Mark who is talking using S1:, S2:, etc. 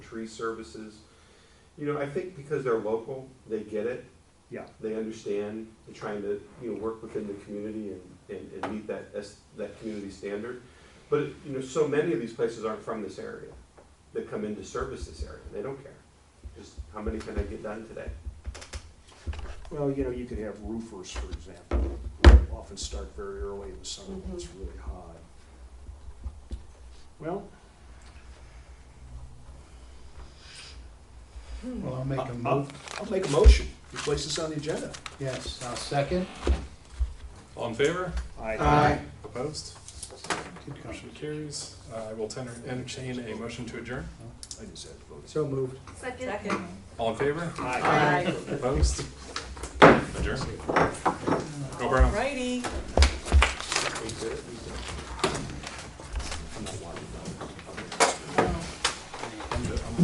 S1: tree services. You know, I think because they're local, they get it.
S2: Yeah.
S1: They understand, they're trying to, you know, work within the community and, and, and meet that, S- that community standard. But, you know, so many of these places aren't from this area, that come in to service this area, they don't care. Just, how many can I get done today?
S2: Well, you know, you could have roofers, for example, often start very early in the summer when it's really hot. Well,
S3: Well, I'll make a
S2: I'll, I'll-
S3: move,
S2: I'll make a motion, we place this on the agenda.
S3: yes, I'll second.
S4: All in favor?
S2: I
S4: Opposed?
S3: Good call.
S4: Motion carries. Uh, I will tender- entertain a motion to adjourn.
S2: I just had to vote.
S3: So moved.
S5: Second. Second.
S4: All in favor?
S2: Aye.
S4: Opposed? Adjourn. Go Browns.
S5: Righty.
S1: They get it, we do.